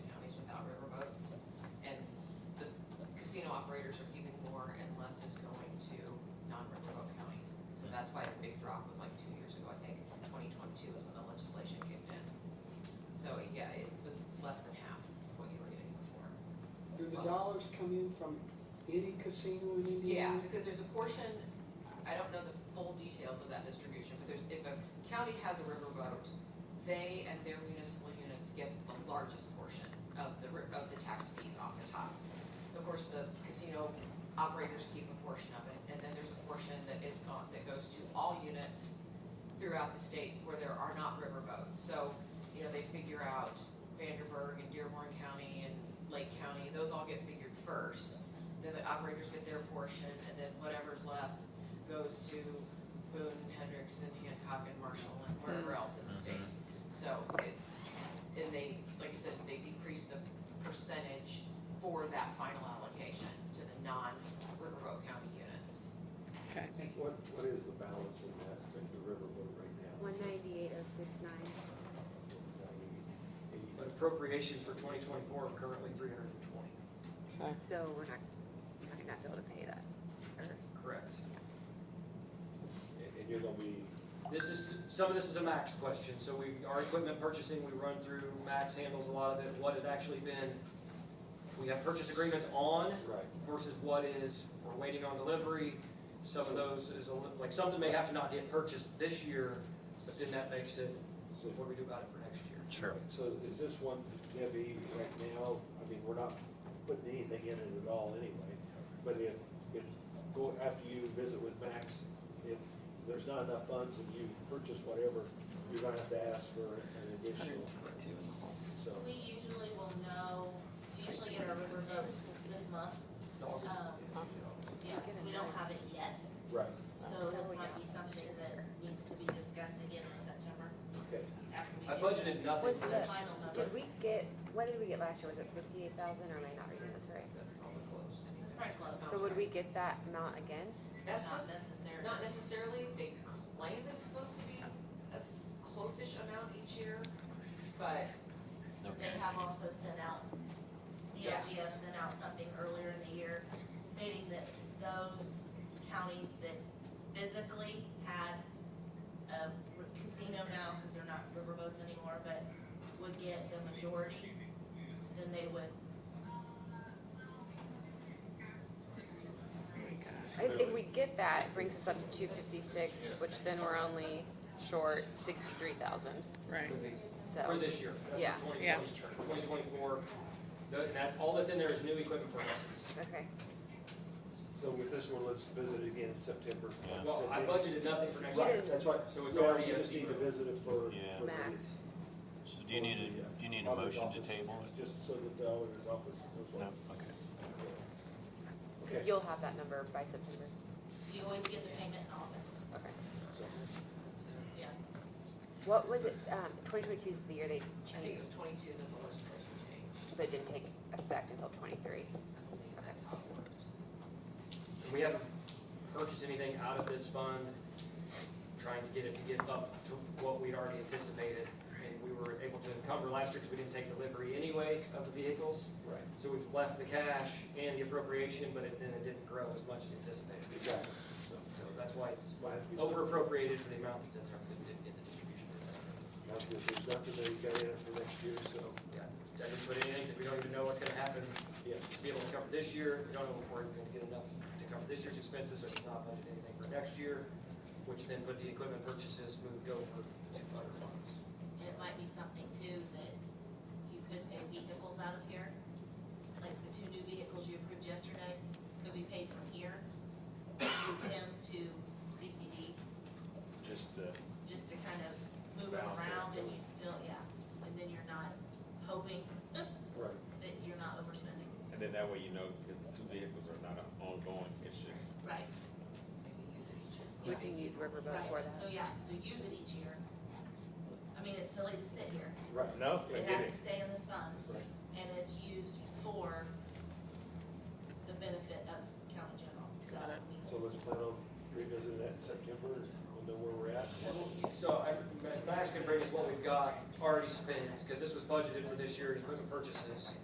do the dollars come in from any casino in Yeah, Indiana? Mm-hmm. because there's a portion, I don't know the full details of that distribution, but there's, if a county has a riverboat, they and their municipal units get the largest portion of the, ri- of the tax fees off the top. Of course, the casino operators keep a portion of it, and then there's a portion that is gone, that goes to all units throughout the state where there are not riverboats. So, you know, they figure out Vanderburgh and Dearborn County and Lake County, those all get figured first then the operators get their portion, and then whatever's left goes to Boone, Hendrickson, Hancock, and Marshall, and wherever else in the state. So it's, and they, like you said, they decrease the percentage for that final allocation to the non-Riverboat County units. Okay. What, what is the balance in that, in the riverboat right now? One ninety-eight oh six nine. Ninety-eight. Appropriations for twenty twenty-four are currently three hundred and twenty. Okay. So we're not, we're not gonna be able to pay that. Or- Correct. And- And you're gonna be, This is, some of this is a Max question, so we, our equipment purchasing, we run through, Max handles a lot of it, what has actually been, we have purchase agreements on right, versus what is, we're waiting on delivery. Some of those is, a li- like, something may have to not get purchased this year, but then that makes it, so, what do we do about it for next year? Sure. so is this one, Debbie, right now, I mean, we're not putting anything in it at all anyway, but if, if, go, after you visit with Max, if there's not enough funds and you purchase whatever, you're gonna have to ask for an additional, so. We usually will know, we usually get our riverboat this month, It's August. Um, yeah, we don't have it yet, Right, so this might be something that needs to be discussed again in September okay. after we I get. budgeted nothing for The next. final number, Did we get, what did we get last year? Was it fifty-eight thousand or am I not reading this right? That's probably I close. think That's pretty close. sounds So would right. we get that amount again? That's what not necessary. Not necessarily, they claim it's supposed to be a s- close-ish amount each year, but They have also sent out, the Yeah. LGF sent out something earlier in the year stating that those counties that physically had a r- casino now, because they're not riverboats anymore, but would get the majority, then they would, I guess if we get that, it brings us up to two fifty-six, which then we're only short sixty-three thousand, Right, Could be. For so. this year, Yeah. that's for Yeah. 2020, 2024. The- and that- all that's in there is new equipment purchases. Okay, So with this one, let's visit it again in September. Yeah. Well, I budgeted nothing for next year. Right, that's right. So it's Yeah, already we a just need to zero. visit it for. Yeah. for max. So do you need a, do you need a motion to table it? Just so that the auditor's office knows No, what. okay. Cause you'll have that number by September, you always get the payment in August, okay. So, yeah. What was it, um, twenty twenty-two is the year they I think it changed, was twenty-two that the legislature changed. but it didn't take effect until twenty-three. I believe that's how it worked. And We haven't purchased anything out of this fund, trying to get it to get up to what we'd already anticipated. And we were able to encumber last year because we didn't take delivery anyway of the vehicles. Right, So we've left the cash and the appropriation, but it, then it didn't grow as much as anticipated. exactly. So, So that's why it's might have to be over something- appropriated for the amount that's in there because we didn't get the distribution. might have to- There's nothing that he's got in it for next year, so, Yeah, I didn't put anything, because we don't even know what's gonna happen, yeah. to be able to cover this year, we don't know if we're gonna get enough to cover this year's expenses, or if not budget anything for next year, which then put the equipment purchases moved over to other funds. And it might be something too that you could pay vehicles out of here, like the two new vehicles you approved yesterday could be paid from here. Move them to CCD, Just uh, the. just to kind of move them Balance it. around and you still, yeah, and then you're not hoping Right. that you're not overspending. And then that way you know, because the two vehicles are not ongoing, it's just Right. Maybe use it each year. We Yeah. can use riverboat Right, for that. so yeah, so use it each year. I mean, it's silly to sit here, Right. no. it has to stay in this fund, Right. and it's used for the benefit of county general, so. Got I it. mean, So let's plan on revisiting that in September, and we'll know where we're at. So I, Max can bring us what we've got already spent, because this was budgeted for this year in equipment purchases.